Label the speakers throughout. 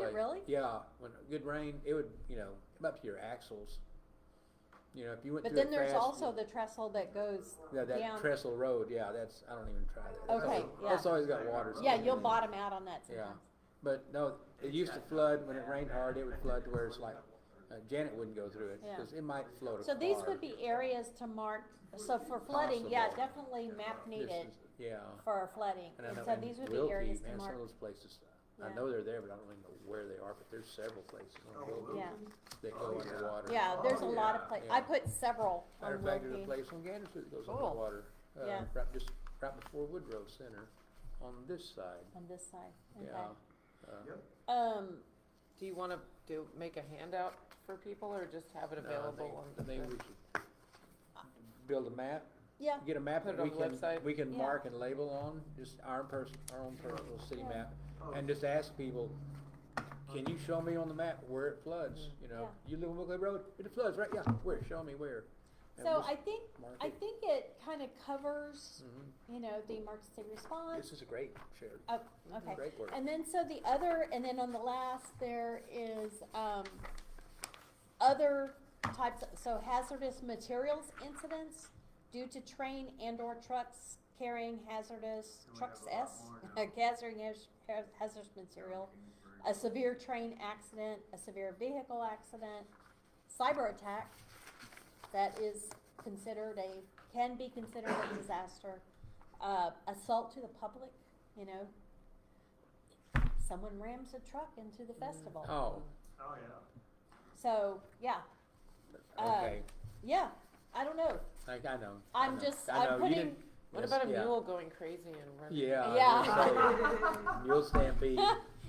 Speaker 1: it really?
Speaker 2: Yeah, when good rain, it would you know come up to your axles. You know, if you went
Speaker 1: But
Speaker 2: through
Speaker 1: then
Speaker 2: it
Speaker 1: there's
Speaker 2: fast,
Speaker 1: also the trestle that goes
Speaker 2: yeah, that
Speaker 1: down.
Speaker 2: trestle road. Yeah, that's I don't even try that. That's
Speaker 1: Okay,
Speaker 2: al-
Speaker 1: yeah.
Speaker 2: That's always got water.
Speaker 1: Yeah,
Speaker 2: somewhere.
Speaker 1: you'll bottom out on that
Speaker 2: Oh, Yeah,
Speaker 1: sometimes.
Speaker 2: but no, it used to flood when it rained hard. It would flood to where it's like uh, Janet wouldn't go through it
Speaker 1: Yeah.
Speaker 2: because it might float. a
Speaker 1: So these
Speaker 2: car.
Speaker 1: would be areas to mark, so for flooding, yeah,
Speaker 2: Possible.
Speaker 1: definitely map
Speaker 2: This
Speaker 1: needed
Speaker 2: is- Yeah.
Speaker 1: for flooding.
Speaker 2: And I
Speaker 1: And
Speaker 2: know-
Speaker 1: so
Speaker 2: and
Speaker 1: these would
Speaker 2: Wilkie,
Speaker 1: be areas to
Speaker 2: man, Some of
Speaker 1: mark,
Speaker 2: those places,
Speaker 1: Yeah.
Speaker 2: I know they're there, but I don't really know where they are, but there's several places on Wilkie
Speaker 1: yeah.
Speaker 2: that go underwater.
Speaker 1: Yeah, there's a lot of places. I
Speaker 2: Yeah.
Speaker 1: put several
Speaker 2: Matter
Speaker 1: on
Speaker 2: of fact, there's a
Speaker 1: Wilkie.
Speaker 2: place on Gander Street that goes
Speaker 1: Cool.
Speaker 2: underwater, uh,
Speaker 1: Yeah.
Speaker 2: right, just, right before Woodrow Center, on this side,
Speaker 1: on this side,
Speaker 2: yeah.
Speaker 1: okay.
Speaker 2: Uh,
Speaker 3: Yep.
Speaker 1: Um,
Speaker 4: Do you wanna do, make a handout for people or just have it
Speaker 2: no, I think-
Speaker 4: available
Speaker 2: I
Speaker 4: on the?
Speaker 2: think we should build a map,
Speaker 1: yeah,
Speaker 2: get a map
Speaker 4: Put it
Speaker 2: that we
Speaker 4: on the
Speaker 2: can,
Speaker 4: website.
Speaker 2: we can
Speaker 1: Yeah.
Speaker 2: mark and label on, just our person, our own personal city
Speaker 1: Yeah.
Speaker 2: map.
Speaker 3: Oh,
Speaker 2: And just ask people, can you show me on the map where it floods,
Speaker 1: Mm-hmm.
Speaker 2: you know, you live on Wilkie Road, it floods, right, yeah, where, show me where. And
Speaker 1: so
Speaker 2: just
Speaker 1: I think,
Speaker 2: mark
Speaker 1: I
Speaker 2: it.
Speaker 1: think it kind of covers,
Speaker 2: Mhm.
Speaker 1: you know, the emergency response.
Speaker 2: This is a great, Sharon,
Speaker 1: Oh, okay.
Speaker 2: great work.
Speaker 1: And then, so the other, and then on the last, there is, um, other types, so hazardous materials incidents due to train and or trucks carrying hazardous,
Speaker 3: And we
Speaker 1: trucks
Speaker 3: have a lot
Speaker 1: S,
Speaker 3: more now.
Speaker 1: carrying haz- haz- hazardous material, a severe train accident, a severe vehicle accident, cyber attack, that is considered a, can be considered a disaster, uh, assault to the public, you know. Someone rams a truck into the festival.
Speaker 2: Oh,
Speaker 3: Oh, yeah.
Speaker 1: So, yeah, Uh,
Speaker 2: okay,
Speaker 1: yeah, I don't know.
Speaker 2: I, I know. I
Speaker 1: I'm
Speaker 2: know.
Speaker 1: just,
Speaker 2: I
Speaker 1: I'm
Speaker 2: know, you
Speaker 1: putting,
Speaker 2: didn't-
Speaker 4: What
Speaker 2: yes,
Speaker 4: about a
Speaker 2: yeah.
Speaker 4: mule going crazy and running?
Speaker 2: Yeah.
Speaker 1: Yeah.
Speaker 2: there's a Mule stampede,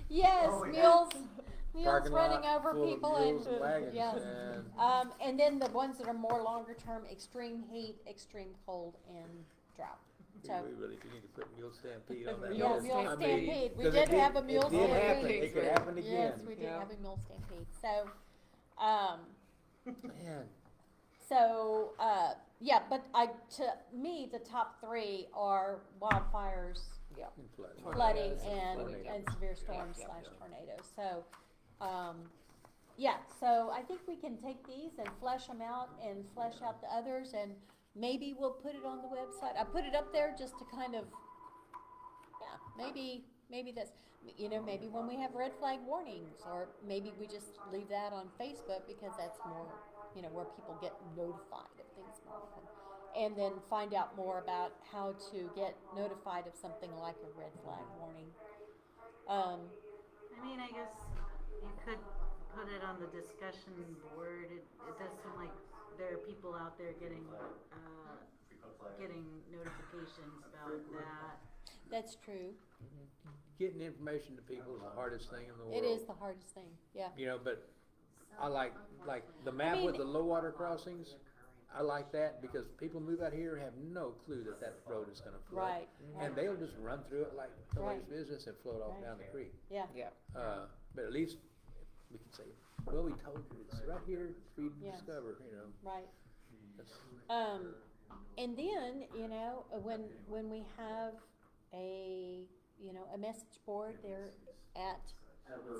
Speaker 1: yes,
Speaker 3: Oh, yeah.
Speaker 1: mules, mules
Speaker 2: parking lot
Speaker 1: running over
Speaker 2: full of
Speaker 1: people
Speaker 2: mules and
Speaker 1: and,
Speaker 2: wagons,
Speaker 1: yes.
Speaker 2: and
Speaker 1: Um, and then the ones that are more longer term, extreme heat, extreme cold and drought. So,
Speaker 2: we really do need to put mule stampede on that.
Speaker 4: Mule
Speaker 1: yeah,
Speaker 2: list.
Speaker 1: mule
Speaker 2: I mean,
Speaker 1: stampede, we
Speaker 2: 'cause it
Speaker 1: did have a mule
Speaker 2: It did happen,
Speaker 1: stampede.
Speaker 2: it could
Speaker 4: Yeah.
Speaker 2: happen
Speaker 1: Yes,
Speaker 2: again,
Speaker 1: we did
Speaker 4: Yeah.
Speaker 1: have a mule stampede, so, um,
Speaker 2: man,
Speaker 1: so, uh, yeah, but I, to me, the top three are wildfires,
Speaker 4: Yeah.
Speaker 2: and flooding.
Speaker 1: flooding
Speaker 4: Tornadoes.
Speaker 1: and,
Speaker 2: Tornadoes.
Speaker 1: and severe storms
Speaker 4: yeah,
Speaker 1: slash
Speaker 4: yeah.
Speaker 1: tornadoes, so, um, yeah, so I think we can take these and flesh them out and flesh out the others, and maybe we'll put it on the website, I put it up there just to kind of, yeah, maybe, maybe that's, you know, maybe when we have red flag warnings, or maybe we just leave that on Facebook, because that's more, you know, where people get notified of things more often. And then find out more about how to get notified of something like a red flag warning. Um,
Speaker 5: I mean, I guess you could put it on the discussion board. It, it does seem like there are people out there getting, uh, getting notifications about that.
Speaker 1: that's true,
Speaker 2: Getting information to people is the hardest thing in the world.
Speaker 1: it is the hardest thing, yeah.
Speaker 2: You know, but I like, like the map with
Speaker 1: mean-
Speaker 2: the low water crossings, I like that because people move out here have no clue that that road is gonna flood.
Speaker 1: Right, Mm-hmm.
Speaker 2: And they'll just run through it like nobody's
Speaker 1: Right.
Speaker 2: business and float off
Speaker 1: Right.
Speaker 2: down the creek.
Speaker 1: yeah,
Speaker 4: Yeah.
Speaker 2: Uh, but at least we can say, well, we told you, it's right here for you to
Speaker 1: Yeah.
Speaker 2: discover, you know.
Speaker 1: right.
Speaker 2: That's-
Speaker 1: Um, and then, you know, uh, when, when we have a, you know, a message board there at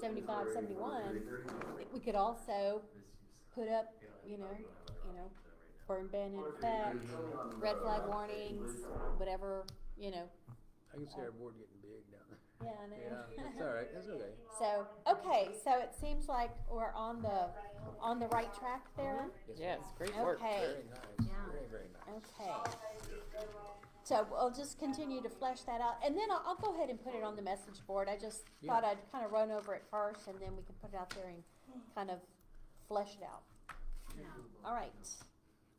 Speaker 1: seventy-five, seventy-one, we could also put up, you know, you know, burn ban in effect, red flag warnings, whatever, you know,
Speaker 2: I can see our board getting big now.
Speaker 1: yeah, I
Speaker 2: Yeah,
Speaker 1: know.
Speaker 2: it's all right, it's okay.
Speaker 1: So, okay, so it seems like we're on the, on the right track there.
Speaker 4: Yes, great work.
Speaker 1: Okay.
Speaker 2: Very nice,
Speaker 5: Yeah.
Speaker 2: very, very nice.
Speaker 1: Okay. So we'll just continue to flesh that out, and then I'll, I'll go ahead and put it on the message board, I just
Speaker 2: Yeah.
Speaker 1: thought I'd kind of run over it first, and then we can put it out there and kind of flesh it out. All right.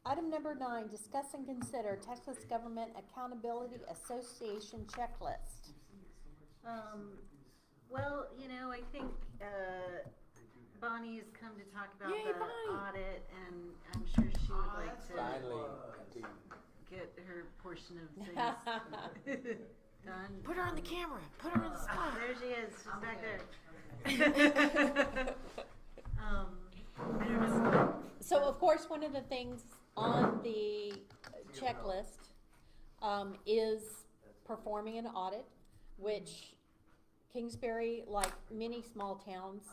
Speaker 1: Item number nine, discuss and consider Texas Government Accountability Association checklist.
Speaker 5: Um, well, you know, I think, uh, Bonnie has come to talk about
Speaker 4: Yay,
Speaker 5: the
Speaker 4: Bonnie.
Speaker 5: audit and I'm sure she would like to
Speaker 2: Finally, indeed.
Speaker 5: get her portion of things done. Um,
Speaker 4: Put her on the camera, put her on the spot.
Speaker 5: There she is, she's back there. Um, I don't know.
Speaker 1: So of course, one of the things on the checklist, um, is performing an audit, which Kingsbury, like many small towns,